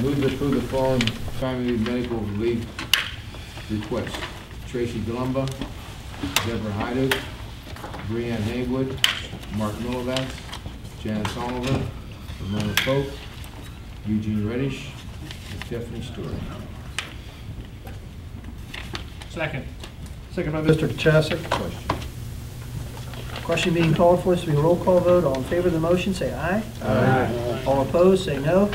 Move to approve the following family medical relief requests. Tracy Glumba, Deborah Hyder, Brianne Haywood, Mark Millivax, Janice Oliver, Ramona Pope, Eugene Reddish, and Stephanie Stewart. Second. Second by Mr. Kachasik. Question? Question being called for, this will be a roll call vote. All in favor of the motion, say aye. Aye. All opposed, say no.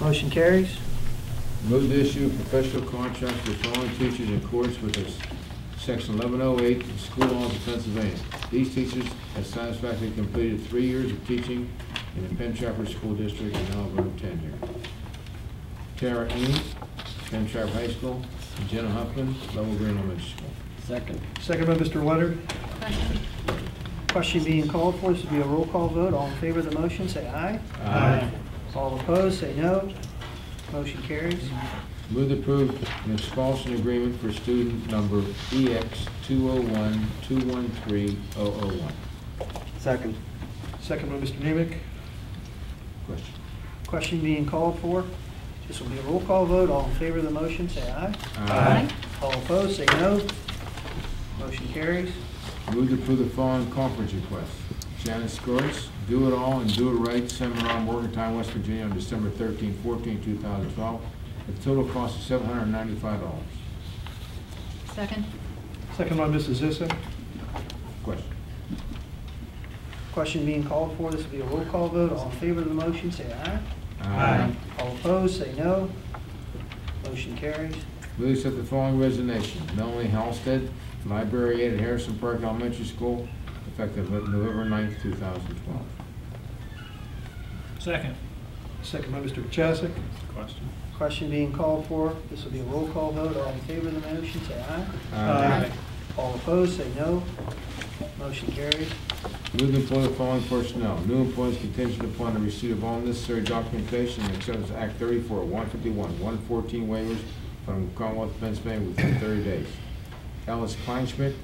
Motion carries. Move to issue professional contracts to following teachers in accordance with this section eleven oh eight of the school laws of Pennsylvania. These teachers have satisfactorily completed three years of teaching in the Penn Trafford School District and now have earned tenure. Tara Eames, Penn Trafford High School, and Jenna Huffman, Level Green Elementary School. Second. Second by Mr. Leonard. question, Question being called for, this will be a roll call vote. All in favor of the motion, say aye. Aye. All opposed, say no. Motion carries. Move to approve an expulsion agreement for student number EX two oh one, two one three, oh oh one. Second. Second by Mr. Nemick. Question? Question being called for, this will be a roll call vote. All in favor of the motion, say aye. aye, All opposed, say no. Motion carries. Move to approve the following conference request. Shannon Skores, Do It All and Do It Right Seminar on Morgantown, West Virginia on December 13, 14, 2012, at a total cost of $795. second, Second by Mrs. Zissa. Question? Question being called for, this will be a roll call vote. All in favor of the motion, say aye. Aye. All opposed, say no. Motion carries. Move to accept the following resignation. Melanie Halsted, library aide at Harrison Park Elementary School, effective November 9, 2012. Second. Second by Mr. Chesick. Question. Question being called for, this will be a roll call vote. All in favor of the motion, say aye. Uh, Aye. All opposed, say no. Motion carries. Move to employ the following personnel. New employees contingent upon the receipt of all necessary documentation and acceptance of Act 34, 151, 114 waivers from Commonwealth of Pennsylvania within 30 days. Alice Kleinschmidt,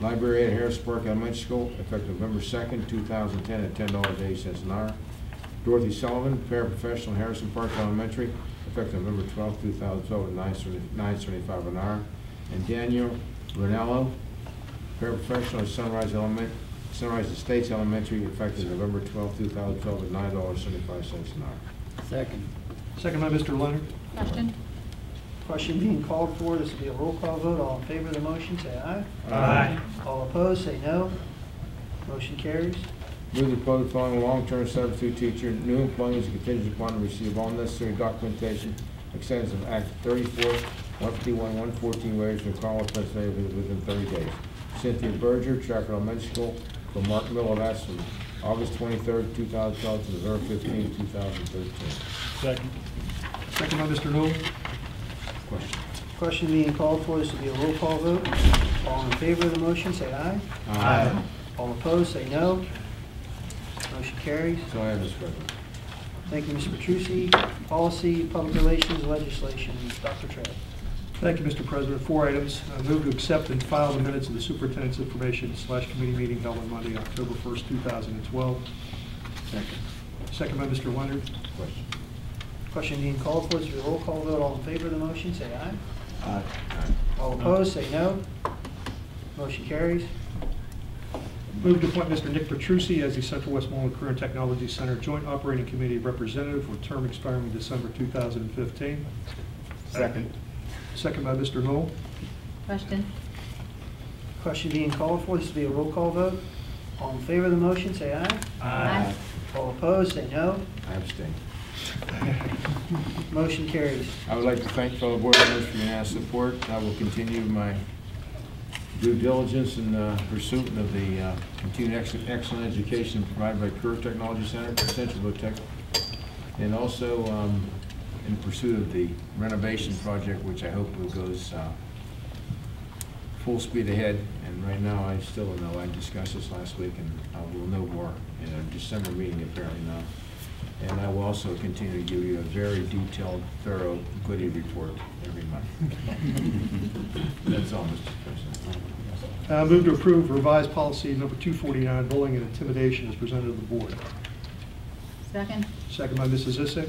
library at Harris Park Elementary School, effective November 2nd, 2010, at $10.80 an hour. Dorothy Sullivan, paraprofessional, Harrison Park Elementary, effective November 12th, 2012, at 9.75 an hour. And Daniel Renello, paraprofessional at Sunrise Element, Sunrise Estates Elementary, effective November twelfth, two thousand twelve, at nine dollars seventy-five cents an hour. Second. Second by Mr. Leonard. question, Question being called for, this will be a roll call vote. All in favor of the motion, say aye. Aye. All opposed, say no. Motion carries. Move to approve the following long-term substitute teacher, new employees contingent upon the receipt of all necessary documentation, extends of Act thirty-four, one fifty-one, one fourteen, waivers from Commonwealth of Pennsylvania within thirty days. Cynthia Berger, Trafford Elementary School, for Mark Millavas, from August twenty-third, two thousand twelve, to November fifteenth, two thousand thirteen. Second. Second by Mr. Noel. Question? Question being called for, this will be a roll call vote. All in favor of the motion, say aye. Aye. All opposed, say no. Motion carries. So I have this record. Thank you, Mr. Petrusi. Policy, Public Relations, Legislation, Dr. Trey. Thank you, Mr. President. Four items. I move to accept and file the minutes of the superintendent's information slash committee meeting held on Monday, October 1st, 2012. Second. Second by Mr. Leonard. Question? Question being called for, this will be a roll call vote. All in favor of the motion, say aye. Aye. All opposed, say no. Motion carries. Move to appoint Mr. Nick Petrusi as the Central Westmoreland Career and Technology Center Joint Operating Committee Representative for term expiring in December 2015. Second. Second by Mr. Knoll. question, Question being called for, this will be a roll call vote. All in favor of the motion, say aye. aye, All opposed, say no. I abstain. Motion carries. I would like to thank fellow board members for your unanimous support. I will continue my due diligence in uh, pursuit of the uh, continued ex- excellent education provided by Career Technology Center, Central Low Tech, and also um, in pursuit of the renovation project, which I hope will goes uh, full speed ahead. And right now, I still don't know, I discussed this last week, and I will know more in a December meeting apparently now. And I will also continue to give you a very detailed, thorough, goody report every month. That's all, Mr. President. Uh, Move to approve revised policy number 249, bullying and intimidation as presented to the board. second. Second by Mrs. Zissig.